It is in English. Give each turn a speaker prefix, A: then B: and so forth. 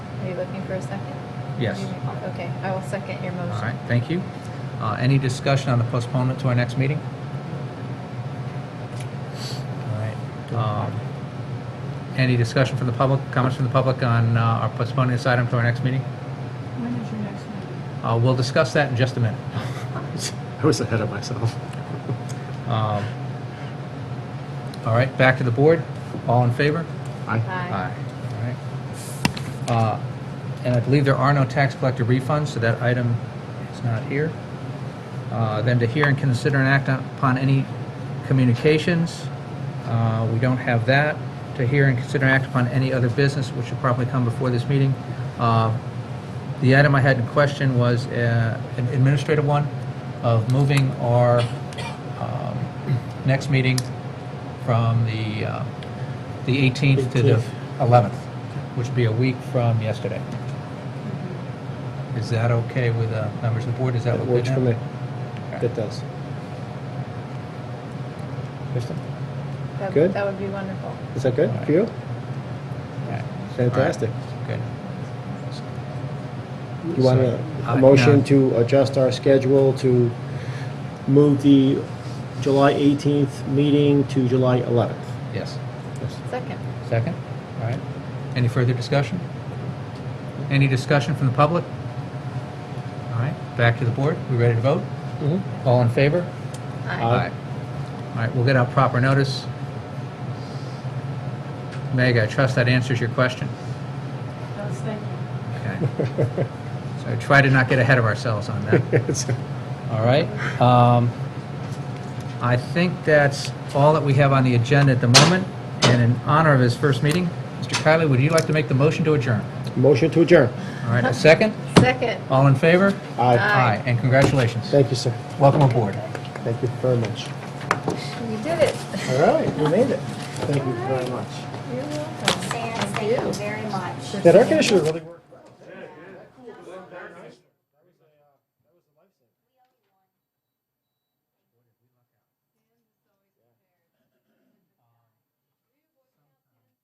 A: looking for a second?
B: Yes.
A: Okay, I will second your
B: All
A: motion.
B: right, thank you. Uh, Any discussion on the postponement to our next meeting? All right. um, Any discussion from the public, comments from the public on uh, our postponing this item to our next meeting?
C: When is your next meeting?
B: Uh, We'll discuss that in just a minute.
D: I was ahead of myself.
B: Um, All right, back to the board. All in favor?
D: I,
A: Aye.
B: All right. Uh, And I believe there are no tax collector refunds, so that item is not here. Uh, Then to hear and consider and act upon any communications, uh, we don't have that. To hear and consider and act upon any other business, which should probably come before this meeting. Uh, The item I had in question was uh, an administrative one of moving our um, next meeting from the uh, the 18th to the
D: 18th.
B: 11th, which would be a week from yesterday. Is that okay with uh, members of the board? Does that
D: that
B: look good
D: works for
B: now?
D: me.
B: Okay.
D: That does. Kristen,
A: That-
D: Good.
A: That would be wonderful.
D: Is that good
B: All right.
D: for you?
B: Okay.
D: Fantastic.
B: Good.
D: You want a,
B: Sorry.
D: a
B: Uh,
D: motion
B: no.
D: to adjust our schedule to move the July 18th meeting to July 11th?
B: Yes.
A: Second.
B: Second? All right. Any further discussion? Any discussion from the public? All right, back to the board. We ready to vote?
D: Mhm.
B: All in favor?
A: Aye.
D: Aye.
B: All right, we'll get out proper notice. Meg, I trust that answers your question.
C: Yes, thank you.
B: Okay. So try to not get ahead of ourselves on that.
D: It's-
B: All right. um, I think that's all that we have on the agenda at the moment. And in honor of his first meeting, Mr. Kylie, would you like to make the motion to adjourn?
D: Motion to adjourn.
B: All right, a second?
A: Second.
B: All in favor?
D: Aye.
A: Aye.
B: And congratulations.
D: Thank you, sir.
B: Welcome aboard.
D: Thank you very much.
A: We did it.
D: All right, we made it. Thank you very much.
A: You're welcome.
E: Sam, thank you very much.
D: That air conditioner really worked.